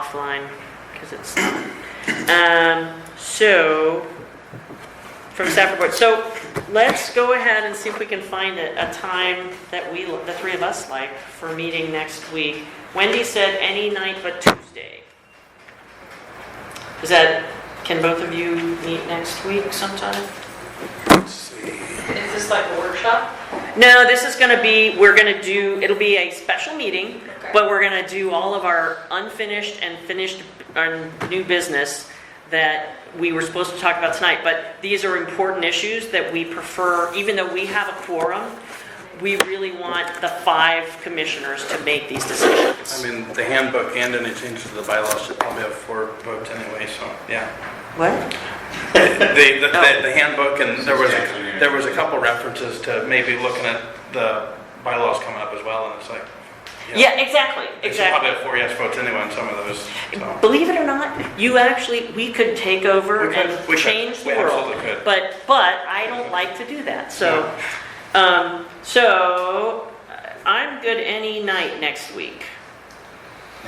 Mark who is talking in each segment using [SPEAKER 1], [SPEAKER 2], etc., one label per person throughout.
[SPEAKER 1] offline because it's, um, so, from Stafford Board. So let's go ahead and see if we can find a, a time that we, the three of us like for meeting next week. Wendy said any night but Tuesday. Is that, can both of you meet next week sometime?
[SPEAKER 2] Is this like a workshop?
[SPEAKER 1] No, this is gonna be, we're gonna do, it'll be a special meeting,
[SPEAKER 2] Okay.
[SPEAKER 1] but we're gonna do all of our unfinished and finished, our new business that we were supposed to talk about tonight, but these are important issues that we prefer, even though we have a quorum, we really want the five commissioners to make these
[SPEAKER 3] I
[SPEAKER 1] decisions.
[SPEAKER 3] mean, the handbook and any changes to the bylaws should probably have four votes anyway, so, yeah.
[SPEAKER 1] What?
[SPEAKER 3] The, the, the the handbook, and there was, a- there was a couple references to maybe looking at the bylaws coming up as well, and it's like. you know,
[SPEAKER 1] Yeah, exactly,
[SPEAKER 3] They should
[SPEAKER 1] exactly.
[SPEAKER 3] probably have four yes votes anyway on some of those, so.
[SPEAKER 1] Believe it or not, you actually, we could take over
[SPEAKER 3] We could,
[SPEAKER 1] and
[SPEAKER 3] we could,
[SPEAKER 1] change the
[SPEAKER 3] we
[SPEAKER 1] world.
[SPEAKER 3] absolutely could.
[SPEAKER 1] But, but I don't like to do that, so, um, so uh, I'm good any night next week.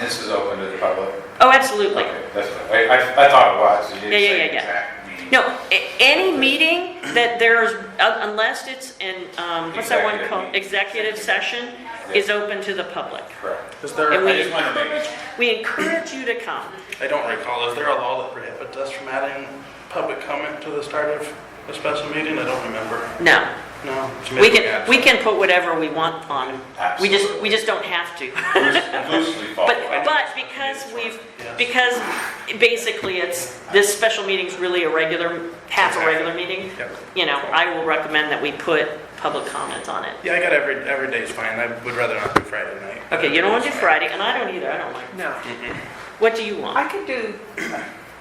[SPEAKER 4] This is open to the public?
[SPEAKER 1] Oh, absolutely.
[SPEAKER 4] Okay, that's what, I, I- I thought it was,
[SPEAKER 1] Yeah,
[SPEAKER 4] you didn't
[SPEAKER 1] yeah,
[SPEAKER 4] say
[SPEAKER 1] yeah, yeah.
[SPEAKER 4] exact meeting.
[SPEAKER 1] No, a- any meeting that there's, un- unless it's in, um, what's that one
[SPEAKER 4] Executive
[SPEAKER 1] called?
[SPEAKER 4] meeting.
[SPEAKER 1] Executive session is open to the public.
[SPEAKER 4] Correct.
[SPEAKER 3] Is there,
[SPEAKER 1] And
[SPEAKER 3] I
[SPEAKER 1] we
[SPEAKER 3] just wanna
[SPEAKER 1] encourage, we encourage you to come.
[SPEAKER 3] I don't recall, is there a law that prohibits us from adding public comment to the start of a special meeting? I don't remember.
[SPEAKER 1] No,
[SPEAKER 3] No. so maybe
[SPEAKER 1] we can,
[SPEAKER 3] add-
[SPEAKER 1] we can put whatever we want on. We just, we just don't have to.
[SPEAKER 4] Loose- Loosely followed.
[SPEAKER 1] But, but because we've,
[SPEAKER 3] Yes.
[SPEAKER 1] because basically it's, this special meeting's really a regular, half a regular meeting,
[SPEAKER 3] Yep.
[SPEAKER 1] you know, I will recommend that we put public comment on it.
[SPEAKER 3] Yeah, I got every, every day's fine, I would rather not do Friday night.
[SPEAKER 1] Okay, you don't want to do Friday, and I don't either, I don't like,
[SPEAKER 2] No.
[SPEAKER 1] what do you
[SPEAKER 2] I
[SPEAKER 1] want?
[SPEAKER 2] could do,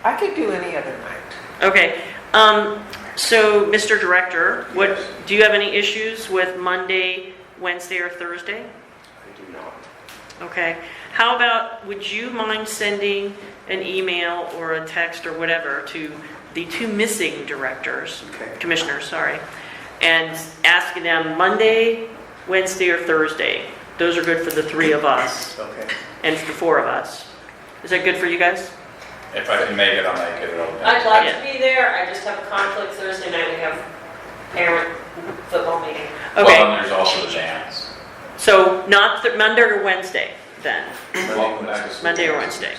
[SPEAKER 2] I could do any other night.
[SPEAKER 1] Okay, um, so, Mr. Director, what,
[SPEAKER 4] Yes.
[SPEAKER 1] do you have any issues with Monday, Wednesday, or Thursday?
[SPEAKER 4] I do not.
[SPEAKER 1] Okay, how about, would you mind sending an email or a text or whatever to the two missing directors, commissioners, sorry, and asking them Monday, Wednesday, or Thursday? Those are good for the three of us
[SPEAKER 3] Okay.
[SPEAKER 1] and for the four of us. Is that good for you guys?
[SPEAKER 4] If I can make it, I'll make it. It'll-
[SPEAKER 5] I'd like to be there, I just have a conflict Thursday night, we have parent football meeting.
[SPEAKER 1] Okay,
[SPEAKER 4] Well, and there's also the jams.
[SPEAKER 1] so not th- Monday or Wednesday then,
[SPEAKER 4] Welcome back to school.
[SPEAKER 1] Monday or Wednesday.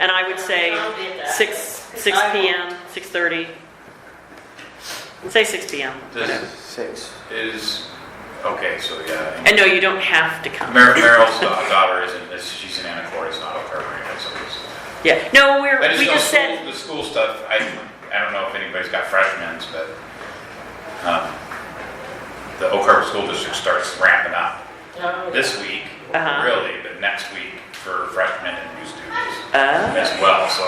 [SPEAKER 1] and I would say
[SPEAKER 5] I'll be at that.
[SPEAKER 1] six, six PM, 6:30. Say six PM.
[SPEAKER 4] This
[SPEAKER 6] Six.
[SPEAKER 4] is, okay, so yeah.
[SPEAKER 1] And no, you don't have to come.
[SPEAKER 4] Mer- Meryl's da- daughter isn't, is- she's in Anacortes, not a permanent, so it's.
[SPEAKER 1] Yeah, no, we're,
[SPEAKER 4] I
[SPEAKER 1] we
[SPEAKER 4] know
[SPEAKER 1] just said,
[SPEAKER 4] school- The school stuff, I, I don't know if anybody's got freshmen, but, um, the Oak Harbor School District starts ramping up
[SPEAKER 5] No,
[SPEAKER 4] this week,
[SPEAKER 1] Uh-huh.
[SPEAKER 4] really, but next week for freshmen and new students
[SPEAKER 1] uh,
[SPEAKER 4] as well, so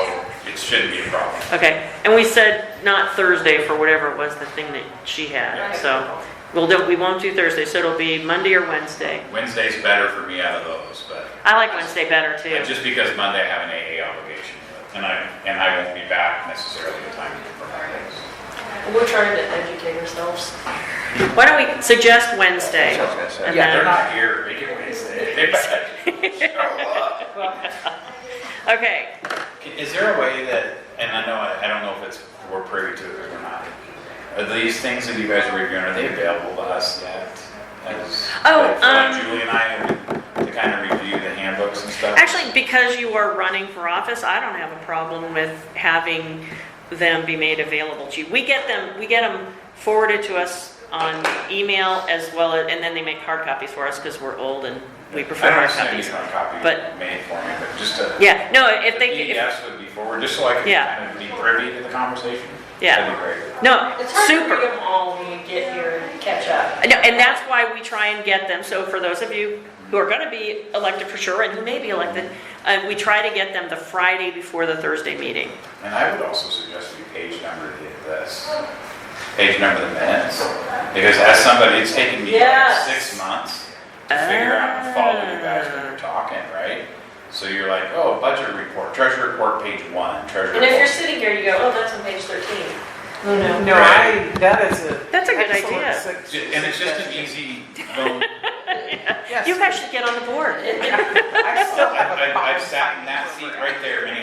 [SPEAKER 4] it shouldn't be a problem.
[SPEAKER 1] okay, and we said not Thursday for whatever it was, the thing that she had,
[SPEAKER 5] Right.
[SPEAKER 1] so. We'll do, we won't do Thursday, so it'll be Monday or Wednesday.
[SPEAKER 4] Wednesday's better for me out of those, but
[SPEAKER 1] I like Wednesday better
[SPEAKER 4] but
[SPEAKER 1] too.
[SPEAKER 4] just because Monday I have an AA obligation, and I, and I won't be back necessarily in time for Mondays.
[SPEAKER 5] We're trying to educate ourselves.
[SPEAKER 1] Why don't we suggest Wednesday?
[SPEAKER 6] That's what I said.
[SPEAKER 1] And
[SPEAKER 2] Yeah,
[SPEAKER 1] then-
[SPEAKER 4] They're not here, they can wait. They better show up.
[SPEAKER 1] Okay,
[SPEAKER 4] Is there a way that, and I know, I don't know if it's, we're privy to it or not, are these things that you guys are reviewing, are they available to us yet? As-
[SPEAKER 1] Oh,
[SPEAKER 4] like, for like
[SPEAKER 1] um,
[SPEAKER 4] Julie and I, to kind of review the handbooks and stuff?
[SPEAKER 1] actually, because you are running for office, I don't have a problem with having them be made available to you. We get them, we get them forwarded to us on email as well, as- and then they make hard copies for us because we're old and we prefer hard
[SPEAKER 4] I don't
[SPEAKER 1] copies.
[SPEAKER 4] understand any hard
[SPEAKER 1] but-
[SPEAKER 4] copy made for me, but just a.
[SPEAKER 1] Yeah, no, if
[SPEAKER 4] the
[SPEAKER 1] they, if-
[SPEAKER 4] PDFs would be forward, just so I could
[SPEAKER 1] Yeah.
[SPEAKER 4] kind of be privy to the conversation.
[SPEAKER 1] Yeah.
[SPEAKER 4] That'd be great.
[SPEAKER 1] no,
[SPEAKER 5] It's hard to read
[SPEAKER 1] super.
[SPEAKER 5] them all when you get here and catch up.
[SPEAKER 1] No, And that's why we try and get them, so for those of you who are gonna be elected for sure, and who may be elected, uh, we try to get them the Friday before the Thursday meeting.
[SPEAKER 4] And I would also suggest you page number the- this, page number the minutes, because as somebody, it's taken me like
[SPEAKER 5] Yes.
[SPEAKER 4] six months to figure out and follow you guys when you're talking, right? So you're like, oh, budget report, treasurer report, page one, treasurer
[SPEAKER 5] And if you're
[SPEAKER 4] report.
[SPEAKER 5] sitting here, you go, oh, that's on page 13. Oh, no.
[SPEAKER 2] No, I, that is a.
[SPEAKER 1] That's a good
[SPEAKER 2] excellent
[SPEAKER 1] idea.
[SPEAKER 2] sug-
[SPEAKER 4] e- Ju- And it's just an easy, little-
[SPEAKER 2] Yes.
[SPEAKER 1] You guys should get on the board.
[SPEAKER 2] I still have
[SPEAKER 4] I-
[SPEAKER 2] a problem
[SPEAKER 4] I've sat in
[SPEAKER 2] finding
[SPEAKER 4] that
[SPEAKER 2] where
[SPEAKER 4] seat
[SPEAKER 2] we're at.
[SPEAKER 4] right there many